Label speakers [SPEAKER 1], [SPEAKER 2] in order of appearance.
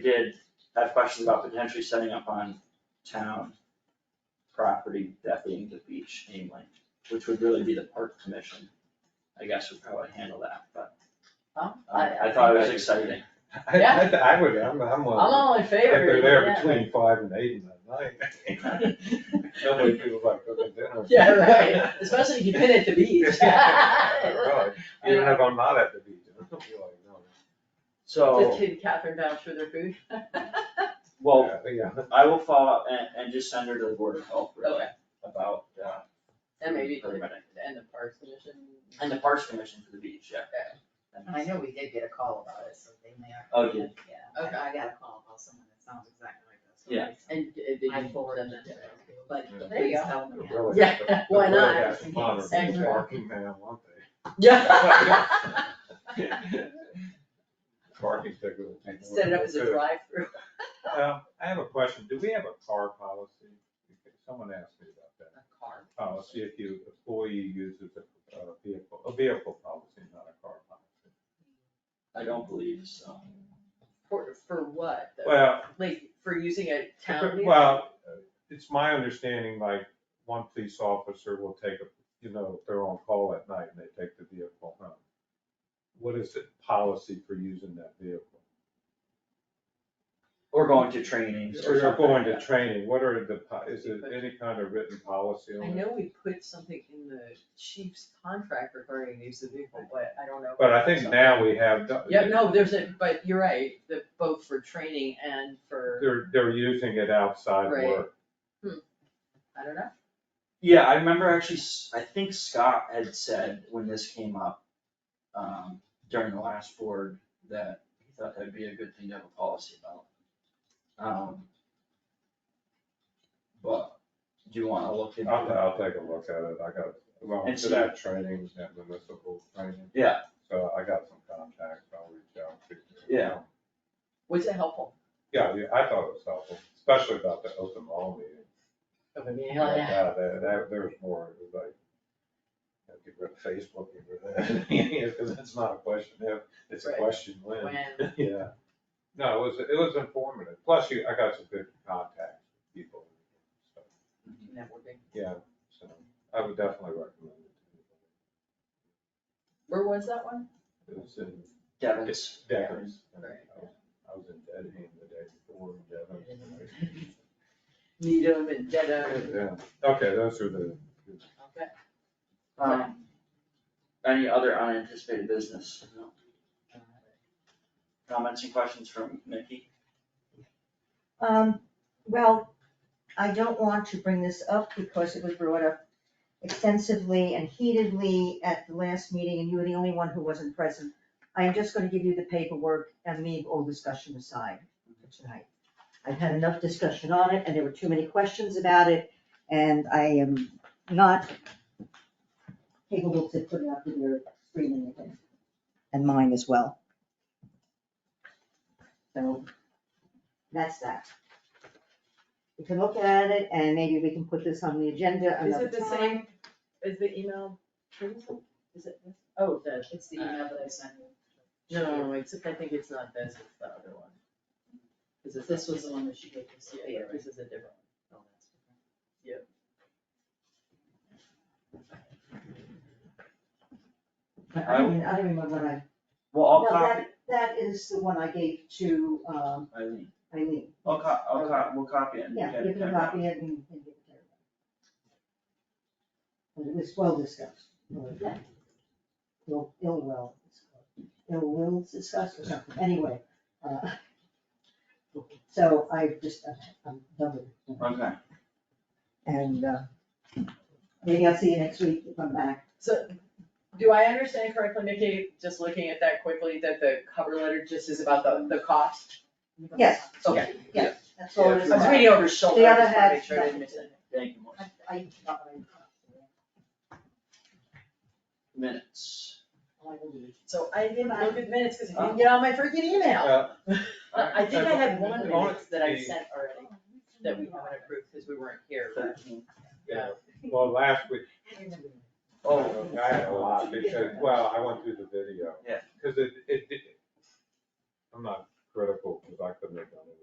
[SPEAKER 1] did have questions about potentially setting up on town property, that being the beach mainly, which would really be the park commission. I guess would probably handle that, but
[SPEAKER 2] Well,
[SPEAKER 1] uh,
[SPEAKER 2] I,
[SPEAKER 1] I thought it was exciting.
[SPEAKER 3] I,
[SPEAKER 2] Yeah.
[SPEAKER 3] I, th- I would, I'm, I'm
[SPEAKER 2] I'm
[SPEAKER 3] on,
[SPEAKER 2] all in
[SPEAKER 3] if
[SPEAKER 2] favor,
[SPEAKER 3] they're there
[SPEAKER 2] yeah.
[SPEAKER 3] between five and eight in the night. So many people like cooking dinner.
[SPEAKER 2] Yeah, right, especially if you pin it to bees.
[SPEAKER 3] Right. Even if I'm not at the beach, I'm like, no. Oh.
[SPEAKER 2] Just
[SPEAKER 1] So,
[SPEAKER 2] kidding, Catherine down for their food.
[SPEAKER 1] well,
[SPEAKER 3] Yeah,
[SPEAKER 1] I will follow up and, and just send her to the board of health really
[SPEAKER 2] Okay.
[SPEAKER 1] about, uh,
[SPEAKER 2] Oh, And maybe, the-
[SPEAKER 1] permitting.
[SPEAKER 2] and the parks commission.
[SPEAKER 1] And the parks commission for the beach, yeah.
[SPEAKER 4] I know we did get a call about it, so they may have.
[SPEAKER 1] Oh, did?
[SPEAKER 4] Yeah,
[SPEAKER 2] Okay.
[SPEAKER 4] I I got a call about someone that sounds exactly like this. so
[SPEAKER 1] Yeah.
[SPEAKER 4] it's-
[SPEAKER 2] And uh, did you
[SPEAKER 4] I forwarded
[SPEAKER 2] send
[SPEAKER 4] them
[SPEAKER 2] that
[SPEAKER 4] to
[SPEAKER 2] to
[SPEAKER 4] them, but
[SPEAKER 3] Yeah.
[SPEAKER 2] There you
[SPEAKER 4] please
[SPEAKER 2] go.
[SPEAKER 4] tell them.
[SPEAKER 3] They're really-
[SPEAKER 2] Yeah,
[SPEAKER 3] they're
[SPEAKER 2] why
[SPEAKER 3] really
[SPEAKER 2] not?
[SPEAKER 3] have to monitor the
[SPEAKER 2] Exactly.
[SPEAKER 3] Parking man, aren't
[SPEAKER 2] Yeah.
[SPEAKER 3] they? Parking ticket. would be
[SPEAKER 2] Set it up as a
[SPEAKER 3] good.
[SPEAKER 2] drive-through.
[SPEAKER 3] Um, I have a question, do we have a car policy? Someone asked me about that.
[SPEAKER 4] A car.
[SPEAKER 3] policy Uh, if you, employee uses a a vehicle, a vehicle policy, not a car policy.
[SPEAKER 1] I don't believe so.
[SPEAKER 2] For, for what? though?
[SPEAKER 3] Well,
[SPEAKER 2] Like, for using a town vehicle?
[SPEAKER 3] well, it's my understanding, like, one police officer will take, a you know, if they're on call at night and they take the vehicle home. What is the policy for using that vehicle?
[SPEAKER 1] Or going to trainings or
[SPEAKER 3] Or you're
[SPEAKER 1] something
[SPEAKER 3] going
[SPEAKER 1] like
[SPEAKER 3] to
[SPEAKER 1] that.
[SPEAKER 3] training, what are the, po- is there any kind of written policy
[SPEAKER 2] I
[SPEAKER 3] on it?
[SPEAKER 2] know we put something in the chief's contract regarding use of vehicle, but I don't know.
[SPEAKER 3] But I think now we have. the-
[SPEAKER 2] Yeah, no, there's a, but you're right, the, both for training and for,
[SPEAKER 3] They're, they're using it outside
[SPEAKER 2] Right.
[SPEAKER 3] work.
[SPEAKER 2] I don't know.
[SPEAKER 1] Yeah, I remember actually, S- I think Scott had said when this came up, um, during the last board, that he thought that'd be a good thing to have a policy about. Um. But, do you wanna look into
[SPEAKER 3] I'll,
[SPEAKER 1] it?
[SPEAKER 3] I'll take a look at it, I got, well,
[SPEAKER 1] And
[SPEAKER 3] to that training, that municipal training.
[SPEAKER 1] Yeah.
[SPEAKER 3] So I got some contacts, I'll reach out to.
[SPEAKER 1] Yeah.
[SPEAKER 2] Was it helpful?
[SPEAKER 3] Yeah, yeah, I thought it was helpful, especially about the open law meeting.
[SPEAKER 2] Hell, yeah.
[SPEAKER 3] Yeah, that, that, there was more, it was like, you know, get rid of Facebook, get rid of that, Yeah, 'cause that's not a question if, it's a
[SPEAKER 2] Right.
[SPEAKER 3] question when.
[SPEAKER 2] When,
[SPEAKER 3] Yeah, no, it was, it was informative, plus you, I got some good contacts, with people, so,
[SPEAKER 2] networking.
[SPEAKER 3] yeah, so I would definitely recommend it.
[SPEAKER 2] Where was that one?
[SPEAKER 3] It was in
[SPEAKER 1] Devin's,
[SPEAKER 3] Deckers.
[SPEAKER 2] Right.
[SPEAKER 3] I was in Dedham the day before, Dedham.
[SPEAKER 2] Needham and Dedham.
[SPEAKER 3] Yeah, okay, those are the,
[SPEAKER 2] Okay.
[SPEAKER 1] um, any other unanticipated business? No. Comments and questions from Mickey?
[SPEAKER 5] Um, well, I don't want to bring this up because it was brought up extensively and heatedly at the last meeting and you were the only one who wasn't present. I am just gonna give you the paperwork and leave all discussion aside for tonight. I've had enough discussion on it and there were too many questions about it and I am not capable to put it out to your screening again. And mine as well. So, that's that. We can look at it and maybe we can put this on the agenda
[SPEAKER 2] Is
[SPEAKER 5] another
[SPEAKER 2] it the
[SPEAKER 5] time.
[SPEAKER 2] same, is the email, is it this? Oh, the,
[SPEAKER 4] It's the email that I sent you.
[SPEAKER 2] no, no, no, except I think it's not this, it's the other one. Is it
[SPEAKER 4] This was the one that she gave us.
[SPEAKER 2] Yeah, yeah, this is a different
[SPEAKER 4] Oh, that's different.
[SPEAKER 5] I don't even, I don't even remember what I,
[SPEAKER 1] Well, I'll
[SPEAKER 5] no,
[SPEAKER 1] copy,
[SPEAKER 5] that, that is the one I gave to, um,
[SPEAKER 1] Eileen,
[SPEAKER 5] Eileen.
[SPEAKER 1] I'll co- I'll co- we'll copy it and get
[SPEAKER 5] Yeah,
[SPEAKER 1] it.
[SPEAKER 5] you can
[SPEAKER 1] typed up.
[SPEAKER 5] copy it and, and give it to her. But it was well discussed. well, yeah. Ill, ill will, ill will discussed or something, anyway. uh, So I just, uh, I'm done with it.
[SPEAKER 1] Okay,
[SPEAKER 5] And, uh, maybe I'll see you next week if I'm back.
[SPEAKER 2] So, do I understand correctly, Nikki, just looking at that quickly, that the cover letter just is about the, the cost?
[SPEAKER 5] Yes,
[SPEAKER 2] Okay,
[SPEAKER 5] that's all
[SPEAKER 2] I
[SPEAKER 5] it is.
[SPEAKER 2] was
[SPEAKER 5] about.
[SPEAKER 2] reading over his shoulder,
[SPEAKER 5] The
[SPEAKER 2] I
[SPEAKER 5] other
[SPEAKER 2] just wanted to
[SPEAKER 5] had
[SPEAKER 2] make sure I didn't
[SPEAKER 5] nothing
[SPEAKER 2] miss
[SPEAKER 5] to
[SPEAKER 2] it.
[SPEAKER 1] thank you, Melissa.
[SPEAKER 5] I, I, not what I-
[SPEAKER 1] Minutes.
[SPEAKER 5] all I really-
[SPEAKER 2] So I didn't look at minutes, cause I didn't get all my freaking email.
[SPEAKER 3] uh,
[SPEAKER 2] I I think I had one
[SPEAKER 3] Alright.
[SPEAKER 2] minutes that I
[SPEAKER 3] The-
[SPEAKER 2] sent already, that we haven't approved, cause we weren't here, but,
[SPEAKER 1] Thirteen.
[SPEAKER 2] yeah.
[SPEAKER 3] well, last week,
[SPEAKER 1] Oh,
[SPEAKER 3] I had a lot, because, well, I went through the video.
[SPEAKER 1] Yeah.
[SPEAKER 3] Cause it, it, it- I'm not critical, because I couldn't have done it.